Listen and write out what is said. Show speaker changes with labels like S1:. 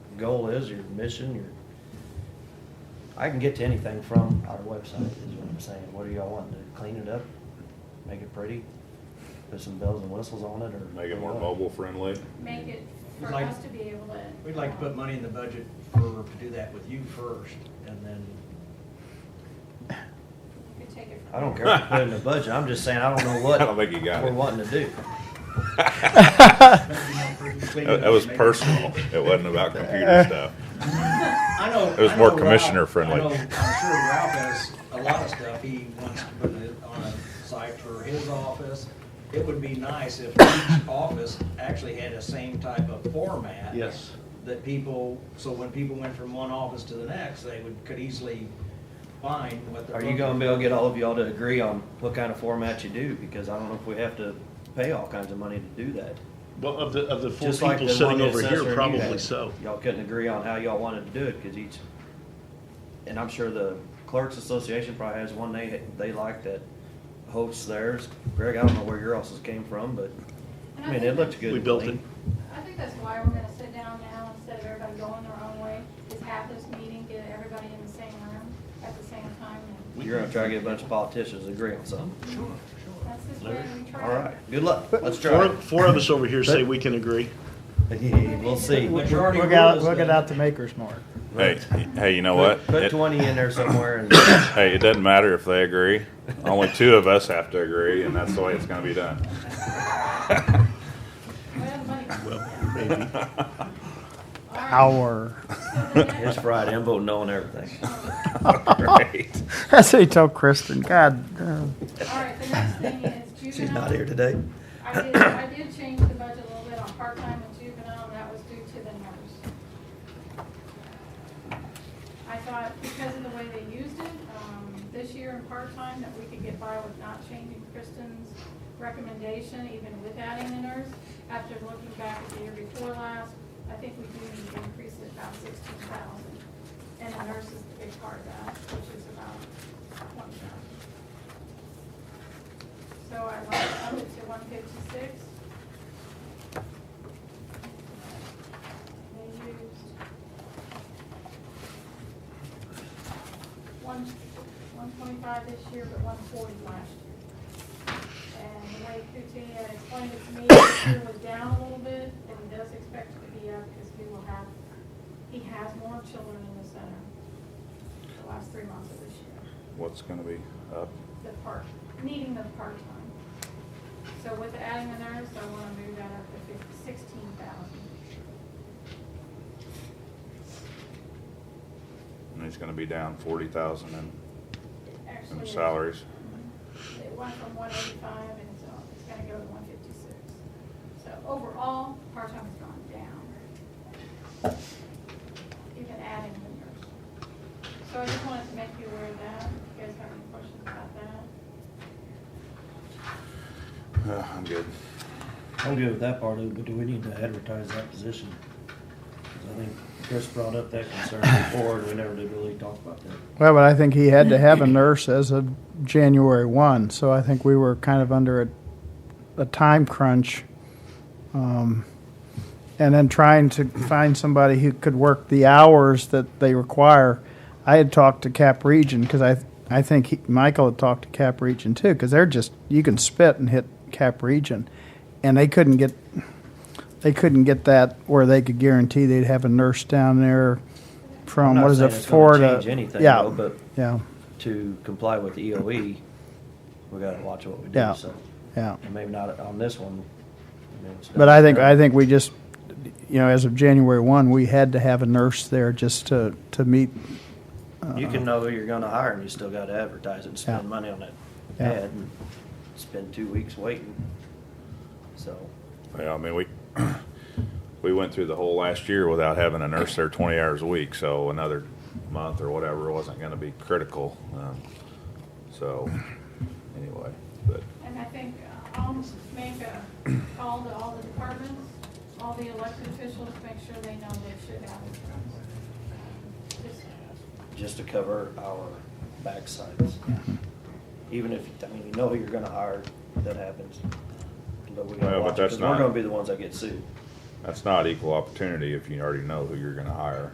S1: goal is, your mission, your, I can get to anything from our website, is what I'm saying. What do y'all want? To clean it up? Make it pretty? Put some bells and whistles on it, or?
S2: Make it more
S1: what?
S2: mobile friendly.
S3: make it
S4: We'd
S3: for
S4: like-
S3: us to be able to. um,
S4: We'd like to put money in the budget for, do that with you first, and then,
S3: You could take it from.
S1: I don't care if you put it in the budget, I'm just saying, I don't know what.
S2: I don't think you got
S1: We're
S2: it.
S1: wanting to do.
S2: That that was personal. It wasn't about computer stuff.
S4: I know.
S2: It was
S4: I
S2: more
S4: know Ralph-
S2: commissioner friendly.
S4: I know- I'm sure Ralph has a lot of stuff he wants to put it on a site for his office. It would be nice if each office actually had the same type of format.
S1: Yes.
S4: That people, so when people went from one office to the next, they would, could easily find what the.
S1: Are you gonna be able to get all of y'all to agree on what kind of format you do? Because I don't know if we have to pay all kinds of money to do that.
S5: Well, of the, of the four
S1: Just like
S5: people
S1: the one
S5: sitting
S1: the
S5: over
S1: assessor and
S5: here,
S1: you
S5: probably
S1: had.
S5: so.
S1: Y'all couldn't agree on how y'all wanted to do it, cause each, and I'm sure the clerks association probably has one they, they like that hosts theirs. Greg, I don't know where your else's came from, but,
S3: And
S1: I mean,
S3: think
S1: it looked good.
S5: We
S1: and
S5: built
S1: clean.
S5: it.
S3: I think that's why we're gonna sit down now instead of everybody going their own way, is have this meeting, get everybody in the same room at the same time. and
S1: You're gonna try to get a bunch of politicians to agree on something.
S4: Sure,
S3: That's just where we try.
S1: All right, good luck. Let's try
S5: Four,
S1: it.
S5: four of us over here say we can agree.
S1: We'll see.
S4: sure. Majority
S6: Look out,
S4: rules,
S6: look
S4: then.
S6: out the maker's mark.
S2: Hey, hey, you know what?
S1: Put
S2: It-
S1: twenty in there somewhere and
S2: Hey, it doesn't matter if they agree. Only two of us have to agree, and that's the way it's gonna be done.
S3: Well, money-
S5: Well, maybe.
S3: All right.
S6: Our.
S3: So the next-
S1: it's Friday, I'm voting no on everything.
S2: Great.
S6: That's what you tell Kristen. God. uh,
S3: All right, the next thing is juvenile.
S1: She's not here today.
S3: I did, I did change the budget a little bit on part-time and juvenile, and that was due to the numbers. I thought because of the way they used it, um, this year in part-time, that we could get by with not changing Kristen's recommendation, even with adding the nurse. After looking back at the year before last, I think we do need to increase it about sixteen thousand. And the nurse is the big part of that, which is about twenty thousand. So I want to up it to one fifty-six. They used one, one twenty-five this year, but one forty last year. And the way Cutia explained it to me, this year was down a little bit, and he does expect it to be up because we will have, he has more children in the center the last three months of this year
S2: What's gonna be up?
S3: the part, needing the part-time. So with adding the nurse, I wanna move that up to fifty, sixteen thousand.
S2: And he's gonna be down forty thousand in,
S3: Actually,
S2: in salaries.
S3: Mhm. It went from one eighty-five and so it's gonna go to one fifty-six. So overall, part-time has gone down. Even adding the nurse. So I just wanted to make you aware of that. If you guys have any questions about that?
S2: Uh, I'm good.
S1: I'm good with that part of it, but do we need to advertise that position? 'Cause I think Chris brought up that concern before, and we never did really talk about that.
S6: Well, but I think he had to have a nurse as of January 1, so I think we were kind of under a, a time crunch. Um, and then trying to find somebody who could work the hours that they require. I had talked to Cap Region because I, I think he, Michael had talked to Cap Region too because they're just you can spit and hit Cap Region, and they couldn't get, they couldn't get that where they could guarantee they'd have a nurse down there
S1: I'm
S6: from
S1: not
S6: what is
S1: saying
S6: it
S1: it's
S6: four
S1: gonna
S6: to
S1: Change anything
S6: yeah
S1: though, but
S6: yeah
S1: to comply with the EOE, we gotta watch what we do,
S6: Yeah.
S1: so.
S6: yeah.
S1: And maybe not on this one. I mean, it's
S6: But I think, I
S1: done.
S6: think we just, you know, as of January one, we had to have a nurse there just to, to meet.
S1: You can know who you're gonna hire, and you still gotta advertise it, and spend
S6: Yeah.
S1: money on that
S6: Yeah.
S1: ad, and spend two weeks waiting. So,
S2: Yeah, I mean, we, we went through the whole last year without having a nurse there twenty hours a week, so another month or whatever wasn't gonna be critical. Um, So, anyway, but
S3: And I think uh, I'll make a call to all the departments, all the elected officials, make sure they know they should have insurance. Um, just-
S1: just to cover our backsides.
S6: Mm-hmm.
S1: Even if, I mean, you know who you're gonna hire, that happens. But we
S2: Well,
S1: gotta
S2: but
S1: watch it,
S2: that's
S1: because we're
S2: not-
S1: gonna be the ones that get sued.
S2: That's not equal opportunity if you already know who you're gonna hire.